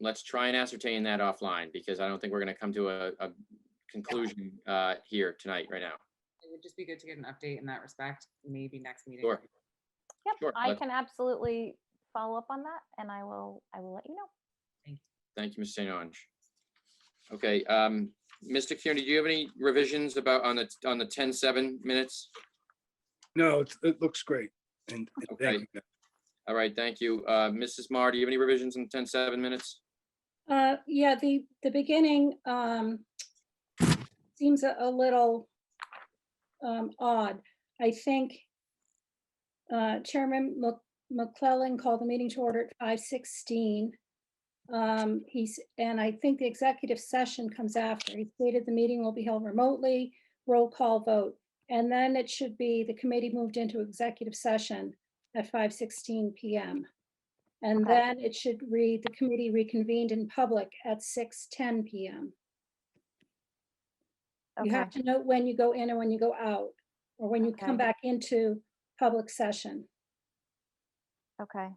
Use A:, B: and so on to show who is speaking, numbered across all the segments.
A: let's try and ascertain that offline because I don't think we're gonna come to a, a conclusion, uh, here tonight, right now.
B: It would just be good to get an update in that respect, maybe next meeting.
A: Sure. Sure,
C: Yep, I
A: let's-
C: can absolutely follow up on that and I will, I will let you know.
A: Thank you, Ms. St. Ange. Okay, um, Mr. Kearney, do you have any revisions about on the, on the ten seven minutes?
D: No, it's, it looks great. And and
A: Okay.
D: thank you.
A: All right, thank you. Uh, Mrs. Mar, do you have any revisions in ten seven minutes?
E: Uh, yeah, the, the beginning, um, seems a, a little, um, odd. I think, uh, Chairman Mc- McClellan called the meeting to order at five sixteen. Um, he's, and I think the executive session comes after. He stated the meeting will be held remotely, roll call vote. And then it should be the committee moved into executive session at five sixteen PM. And
C: Okay.
E: then it should read, the committee reconvened in public at six ten PM. You
C: Okay,
E: have to note when you go in and when you go out, or when you
C: Okay.
E: come back into public session.
C: okay.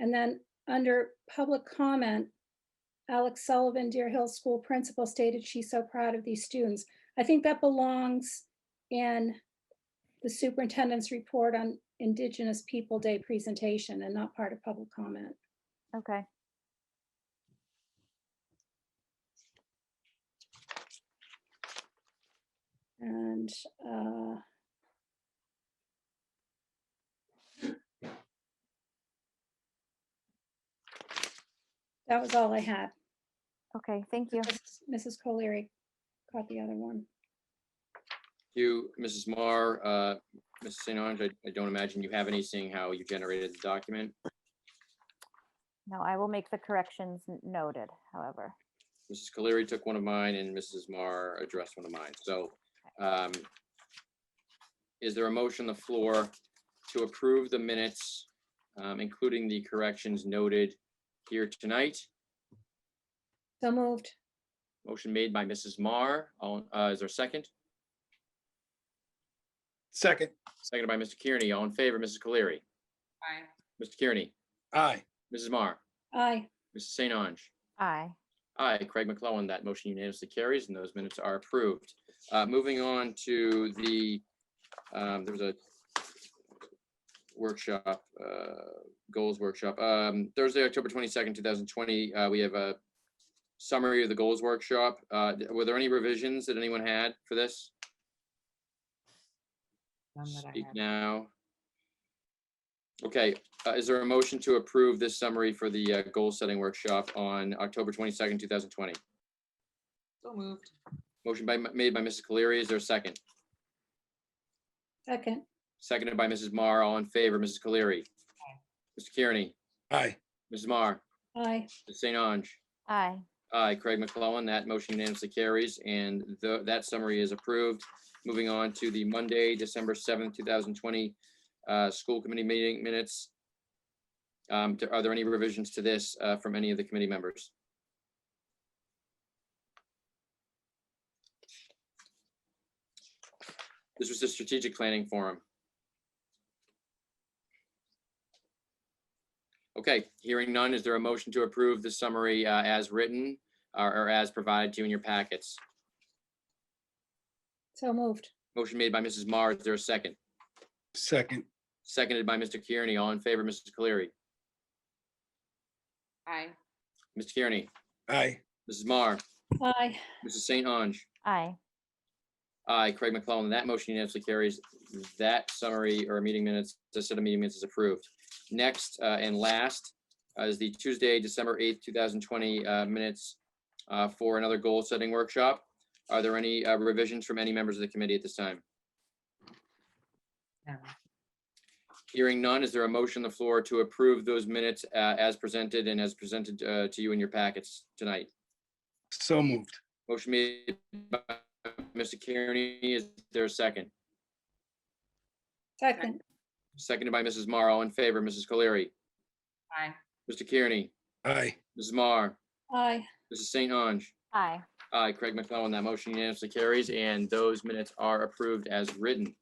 E: And then under public comment, Alex Sullivan, Deer Hill School Principal stated she's so proud of these students. I think that belongs in the superintendent's report on Indigenous People Day presentation and not part of public comment.
C: Okay.
E: And, uh, that was all I had.
C: Okay. Thank you.
E: Mrs. Colery caught the other one.
A: Thank You, Mrs. Mar, uh, Mrs. St. Ange, I, I don't imagine you have any, seeing how you generated the document.
C: No, I will make the corrections n- noted, however.
A: Mrs. Caleri took one of mine and Mrs. Mar addressed one of mine. So um, is there a motion on the floor to approve the minutes, um, including the corrections noted here tonight?
E: So moved.
A: Motion made by Mrs. Mar. All- uh, Is there a second?
D: Second,
A: Seconded by Mr. Kearney. All in favor, Mrs. Caleri,
B: Bye.
A: Mr. Kearney,
D: aye.
A: Mrs. Mar,
E: Aye.
A: Mrs. St. Ange.
C: Aye.
A: Aye, Craig McClellan. That motion unanimously carries and those minutes are approved. Uh, Moving on to the, um, there was a workshop, uh, goals workshop, um, Thursday, October 22nd, 2020. uh, We have a summary of the goals workshop. Uh, th- Were there any revisions that anyone had for this?
B: None that I
A: Speak
B: had.
A: now. Okay, uh, is there a motion to approve this summary for the uh, goal-setting workshop on October 22nd, 2020?
B: So moved.
A: Motion by, made by Mrs. Cleary. Is there a second?
E: Second.
A: Seconded by Mrs. Mar. All in favor, Mrs. Cleary. Mr. Kearney,
D: Aye.
A: Mrs. Mar,
E: Aye.
A: Ms. St. Ange.
C: Aye.
A: Aye, Craig McClellan. That motion unanimously carries and tho- that summary is approved. Moving on to the Monday, December seventh, two thousand twenty, uh, school committee meeting minutes. Um, do- are there any revisions to this, uh, from any of the committee members? This was the strategic planning forum. Okay, hearing none, is there a motion to approve the summary uh, as written or or as provided to you in your packets?
E: So moved.
A: Motion made by Mrs. Mar, is there a second?
D: Second,
A: Seconded by Mr. Kearney, all in favor, Mrs. Cleary,
B: Aye.
A: Mr. Kearney,
D: aye.
A: Mrs. Mar,
E: Aye.
A: Mrs. St. Ange.
C: Aye.
A: Aye, Craig McClellan, that motion unanimously carries. That summary or meeting minutes, the set of meeting minutes is approved. Next uh, and last uh, is the Tuesday, December 8th, 2020 uh, minutes uh, for another goal-setting workshop. Are there any uh, revisions from any members of the committee at this time?
B: No.
A: Hearing none, is there a motion on the floor to approve those minutes uh, as presented and as presented uh, to you in your packets tonight?
D: So moved.
A: Motion made by Mr. Kearney, is there a second?
E: Second.
A: Seconded by Mrs. Mar, all in favor, Mrs. Colery,
B: Aye.
A: Mr. Kearney,
D: Aye.
A: Mrs. Mar,
E: Aye.
A: Mrs. St. Ange.
C: Aye.
A: Aye, Craig McClellan, that motion unanimously carries, and those minutes are approved as written.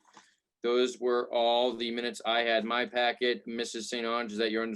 A: Those were all the minutes I had in my packet. Mrs. St. Ange, is that your